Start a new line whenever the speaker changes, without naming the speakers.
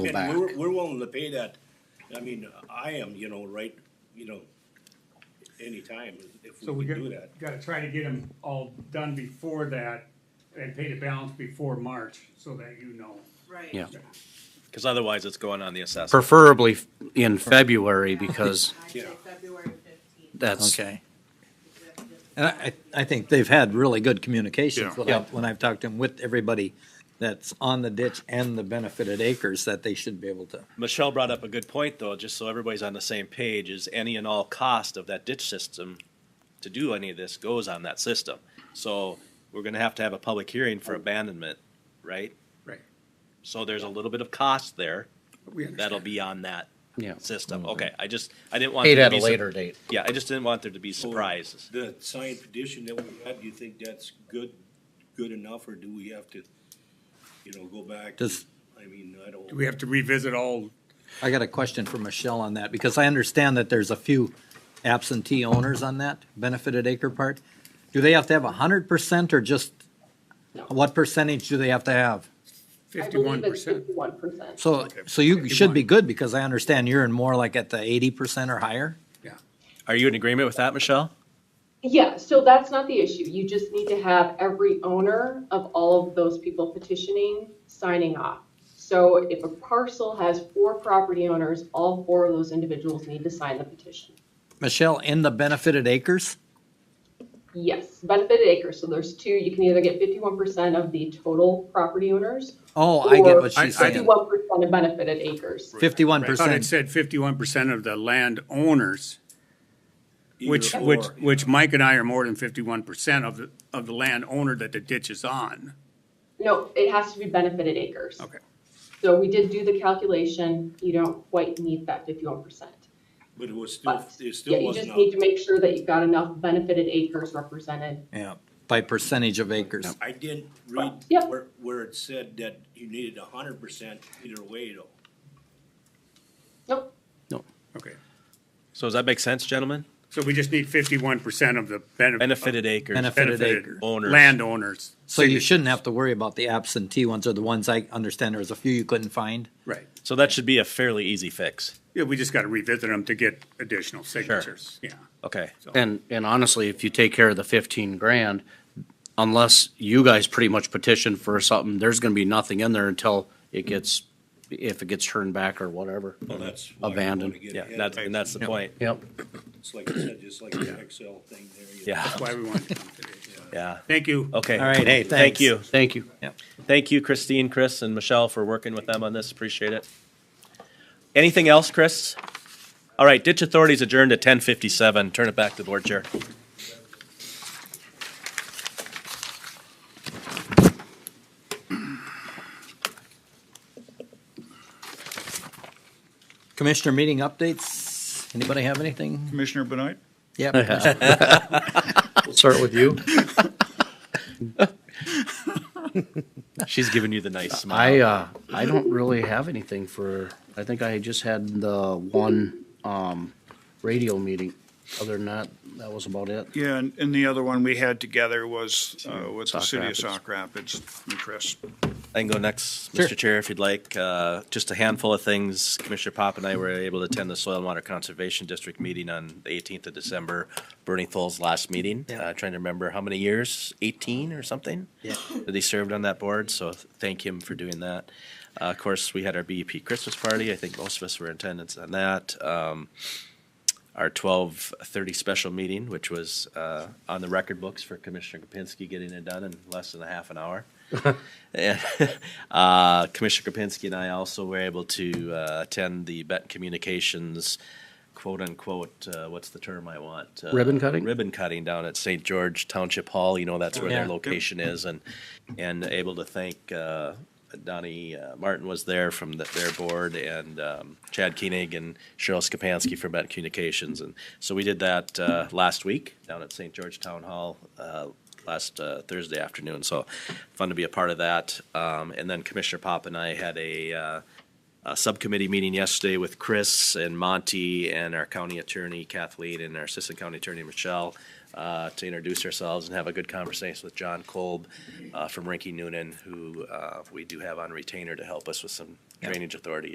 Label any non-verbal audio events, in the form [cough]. go
And
back.
we're, we're willing to pay that, I mean, I am, you know, right, you know, anytime, if
So we
we
got,
can do that.
gotta try to get them all done before that and pay the balance before March so that you know.
Right. [laughs]
Yeah.
Because otherwise, it's going on the assessment.
Preferably in February because
I'd say
Yeah.
February fifteenth.
that's,
Okay. And
That's
I, I think they've had really good communications
Yeah.
when I've, when I've talked to them with everybody that's on the ditch and the benefited acres that they should be able to.
Michelle brought up a good point, though, just so everybody's on the same page, is any and all cost of that ditch system to do any of this goes on that system. So we're gonna have to have a public hearing for abandonment, right?
Right.
So there's a little bit of cost there
We
that'll be on that
Yeah.
system. Okay, I just, I didn't want.
paid
there to
at a
be sur-
later date.
Yeah, I just didn't want there to be surprises.
The signed petition that we had, do you think that's good, good enough, or do we have to, you know, go back?
Does-
I mean, I don't.
Do we have to revisit all?
I got a question for Michelle on that, because I understand that there's a few absentee owners on that benefited acre part. Do they have to have a hundred percent or just, what percentage do they have to have?
Fifty-one percent.
Fifty-one percent.
So, so you should be good, because I understand you're in more like at the eighty percent or higher?
Are you in agreement with that, Michelle?
Yeah, so that's not the issue. You just need to have every owner of all of those people petitioning signing off. So if a parcel has four property owners, all four of those individuals need to sign the petition.
Michelle, in the benefited acres?
Yes, benefited acres. So there's two, you can either get fifty-one percent of the total property owners.
Oh, I get
or
what she's saying.
Fifty-one percent of benefited acres.
Fifty-one
I thought it
percent.
said fifty-one percent of the landowners, which,
Either
which,
or, yeah.
which Mike and I are more than fifty-one percent of the, of the landowner that the ditch is on.
No, it has to be benefited acres.
Okay.
So we did do the calculation. You don't quite need that fifty-one percent.
But it was still,
But,
it
yeah,
still
you just
wasn't.
need to
a-
make sure that you've got enough benefited acres represented.
Yeah, by percentage of acres.
I didn't read
Yeah.
where, where it said that you needed a hundred percent either way, though.
Nope,
Okay.
So does that make sense, gentlemen?
So we just need fifty-one percent of the benefit.
Benefited acres.
Benef- Benefited
Benefited
owners.
landowners.
So you shouldn't have to worry about the absentee ones or the ones I understand there was a few you couldn't find.
Right.
So that should be a fairly easy fix.
Yeah, we just gotta revisit them to get additional signatures, yeah.
Okay.
And, and honestly, if you take care of the fifteen grand, unless you guys pretty much petition for something, there's gonna be nothing in there until it gets, if it gets turned back or whatever.
Well, that's. why we
Abandoned.
wanna get
Mm-hmm. Yeah,
ahead of
that's,
it.
and that's the point.
Yep.
It's like I said, just like the Excel thing there. you know.
Yeah,
That's why we wanted to come today.
yeah.
Thank you.
Okay.
All right,
Hey, thank
thanks.
you.
Thank you.
Thank you, Christine, Chris, and Michelle for working with them on this. Appreciate it. Anything else, Chris? All right, ditch authorities adjourned at ten fifty-seven. Turn it back to board chair.
Commissioner meeting updates? Anybody have anything?
Commissioner Benoit?
Yeah.
Start with you.
She's giving you the nice smile.
I, uh, I don't really have anything for, I think I just had the one, um, radio meeting. Other than that, that was about it.
Yeah, and, and the other one we had together was uh, with the
Sauk
city of
Rapids.
Sauk Rapids, and Chris.
I can go next,
Sure.
Mr. Chair, if you'd like. Uh, Just a handful of things. Commissioner Pop and I were able to attend the Soil and Water Conservation District meeting on the eighteenth of December, Bernie Thol's last meeting. Uh, Trying to remember how many years, eighteen or something?
Yeah.
That he served on that board, so th- thank him for doing that. Uh, Of course, we had our BEP Christmas party. I think most of us were in attendance on that. Um, Our twelve thirty special meeting, which was uh, on the record books for Commissioner Kapinski getting it done in less than a half an
[laughs]
hour. [laughs] And, uh, Commissioner Kapinski and I also were able to uh, attend the Benton Communications quote unquote, uh, what's the term I want? Uh,
Ribbon cutting?
Ribbon cutting down at St. George Township Hall. You know, that's where their
Yeah.
location is. And, and able to thank uh, Donnie uh, Martin was there from the, their board and um, Chad Koenig and Cheryl Skapansky from Benton Communications. And so we did that uh, last week down at St. George Town Hall uh, last uh, Thursday afternoon. So fun to be a part of that. Um, and then Commissioner Pop and I had a, uh, a subcommittee meeting yesterday with Chris and Monty and our county attorney Kathleen and our assistant county attorney Michelle uh, to introduce ourselves and have a good conversation with John Kolb uh, from Rinky Noonan, who uh, we do have on retainer to help us with some drainage authority